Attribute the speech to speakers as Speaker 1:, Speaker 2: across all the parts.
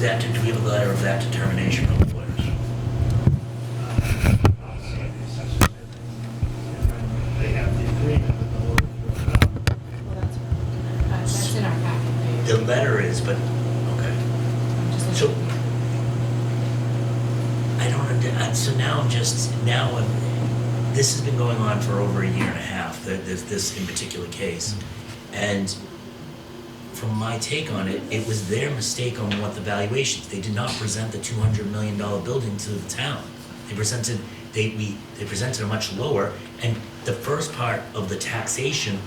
Speaker 1: that, do we have a letter of that determination from the lawyers?
Speaker 2: They have the agreement with the lawyers drawn up.
Speaker 3: Well, that's, uh, that's in our packet.
Speaker 1: The letter is, but, okay.
Speaker 3: I'm just
Speaker 1: So,
Speaker 3: looking.
Speaker 1: I don't, under- I- so now I'm just, now, I'm- this has been going on for over a year and a half, th- this, this in particular case. And from my take on it, it was their mistake on what the valuations, they did not present the two hundred million dollar building to the town. They presented, they, we, they presented a much lower, and the first part of the taxation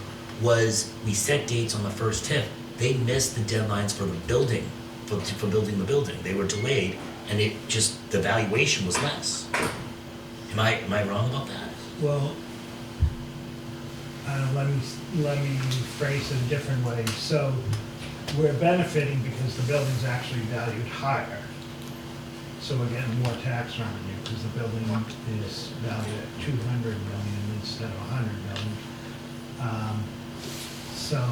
Speaker 1: was, we set dates on the first tip. They missed the deadlines for the building, for, for building the building, they were delayed, and it just, the valuation was less. Am I, am I wrong about that?
Speaker 2: Well, uh, let me, let me phrase it a different way. So we're benefiting because the building's actually valued higher. So we're getting more tax revenue because the building is valued at two hundred million instead of hundred million. Um, So,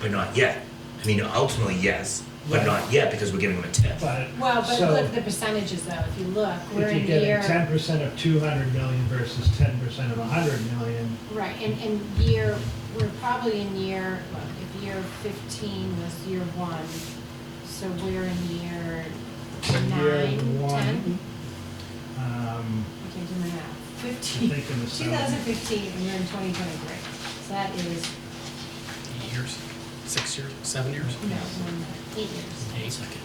Speaker 1: But not yet, I mean, ultimately, yes, but
Speaker 2: Right.
Speaker 1: not yet, because we're giving them a tip.
Speaker 2: but,
Speaker 3: Well, but look
Speaker 2: so
Speaker 3: at the percentages though, if you look, we're
Speaker 2: if
Speaker 3: in
Speaker 2: you're getting
Speaker 3: year,
Speaker 2: ten percent of two hundred million versus ten percent of hundred million,
Speaker 3: right, and, and year, we're probably in year, look, if year fifteen was year one, so we're in year
Speaker 2: year
Speaker 3: nine, ten?
Speaker 2: one. Um,
Speaker 3: I can't do my math.
Speaker 2: I
Speaker 3: Fifteen,
Speaker 2: think in the
Speaker 3: two thousand fifteen, and we're in twenty twenty-three, so that is,
Speaker 4: years, six years, seven years?
Speaker 3: no, one, eight years.
Speaker 1: Hey, second.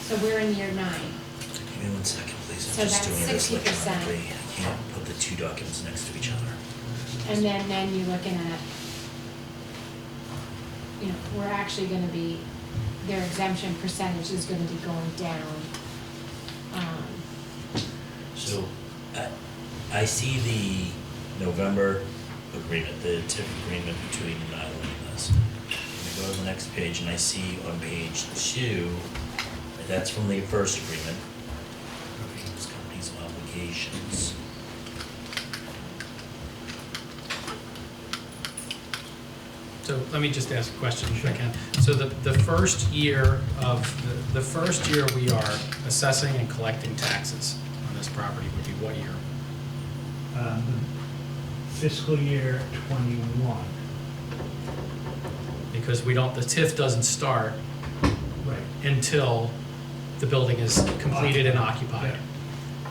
Speaker 3: So we're in year nine.
Speaker 1: Give me one second, please.
Speaker 3: So
Speaker 1: I'm just
Speaker 3: that's
Speaker 1: doing this
Speaker 3: 60%.
Speaker 1: electronically. I can't put the two documents next to each other.
Speaker 3: And then, then you're looking at, you know, we're actually gonna be, their exemption percentage is gonna be going down. Um,
Speaker 1: So I, I see the November agreement, the TIP agreement between Island and us. And I go to the next page and I see on page two, that's from the first agreement. These companies' obligations.
Speaker 4: So let me just ask a question if I can. So the, the first year of, the, the first year we are assessing and collecting taxes on this property would be what year?
Speaker 2: um, fiscal year twenty-one.
Speaker 4: Because we don't, the TIF doesn't start
Speaker 2: Right.
Speaker 4: until the building is completed and occupied.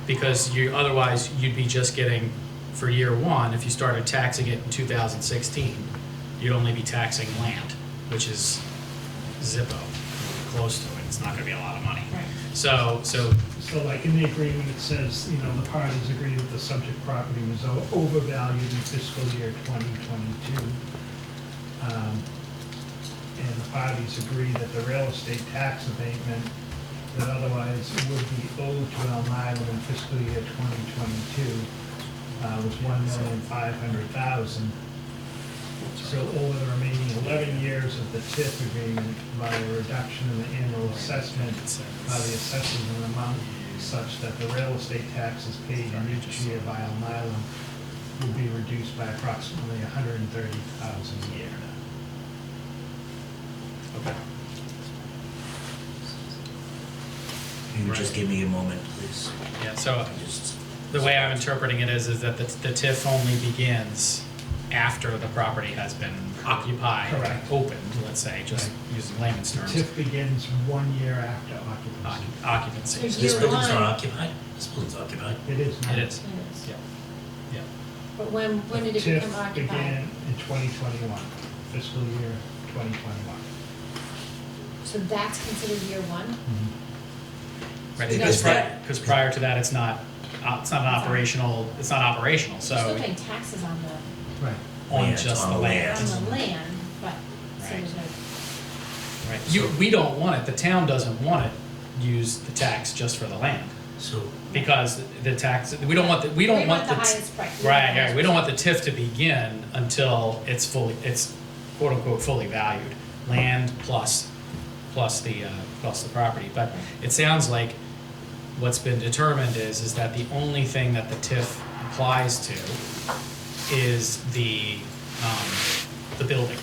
Speaker 4: Because you, otherwise, you'd be just getting, for year one, if you started taxing it in 2016, you'd only be taxing land, which is zippo, close to it, it's not gonna be a lot of money.
Speaker 3: Right.
Speaker 4: So, so,
Speaker 2: So like in the agreement, it says, you know, the parties agree that the subject property was o- overvalued in fiscal year twenty twenty-two. Um, And the parties agree that the real estate tax abatement that otherwise would be owed to Elm Island in fiscal year twenty twenty-two uh, was one million five hundred thousand. So over the remaining eleven years of the TIF agreement, by a reduction in the annual assessment
Speaker 4: uh,
Speaker 2: by the assessors an amount such that the real estate taxes paid in each year by Elm Island will be reduced by approximately hundred and thirty thousand a year.
Speaker 4: okay.
Speaker 1: Can you just
Speaker 4: Right.
Speaker 1: give me a moment, please?
Speaker 4: Yeah, so
Speaker 1: I just-
Speaker 4: the way I'm interpreting it is, is that the the TIF only begins after the property has been occupied.
Speaker 2: Correct.
Speaker 4: Opened, let's say, just using layman's terms.
Speaker 2: TIF begins one year after
Speaker 4: Occu-
Speaker 2: occupancy.
Speaker 4: occupancy.
Speaker 3: So
Speaker 1: This
Speaker 3: Year
Speaker 1: building's not
Speaker 3: one.
Speaker 1: occupied? This building's occupied?
Speaker 2: It is now.
Speaker 4: It is,
Speaker 3: yes.
Speaker 4: yeah, yeah.
Speaker 3: But when, when did it
Speaker 2: TIF
Speaker 3: become occupied?
Speaker 2: began in twenty twenty-one, fiscal year twenty twenty-one.
Speaker 3: So that's considered year one?
Speaker 4: Mm-hmm. Right,
Speaker 3: Because
Speaker 4: because prior,
Speaker 1: that-
Speaker 4: because prior to that, it's not, uh, it's not an operational, it's not operational,
Speaker 3: You're still
Speaker 4: so
Speaker 3: paying taxes on the,
Speaker 2: Right.
Speaker 1: Yeah,
Speaker 4: on
Speaker 1: it's
Speaker 4: just
Speaker 1: on
Speaker 4: the
Speaker 1: the
Speaker 4: land.
Speaker 1: land.
Speaker 3: on the land, but, so there's no,
Speaker 4: Right, you, we don't want it, the town doesn't want it, used the tax just for the land,
Speaker 1: So
Speaker 4: because the tax, we don't want, the we
Speaker 3: We
Speaker 4: don't
Speaker 3: want
Speaker 4: want the.
Speaker 3: the
Speaker 4: t-
Speaker 3: highest price. We want the
Speaker 4: Right, right,
Speaker 3: highest
Speaker 4: we don't want the TIF to begin until it's fully, it's quote unquote fully valued, land plus, plus the, uh, plus the property. But it sounds like what's been determined is, is that the only thing that the TIF applies to is the, um, the building.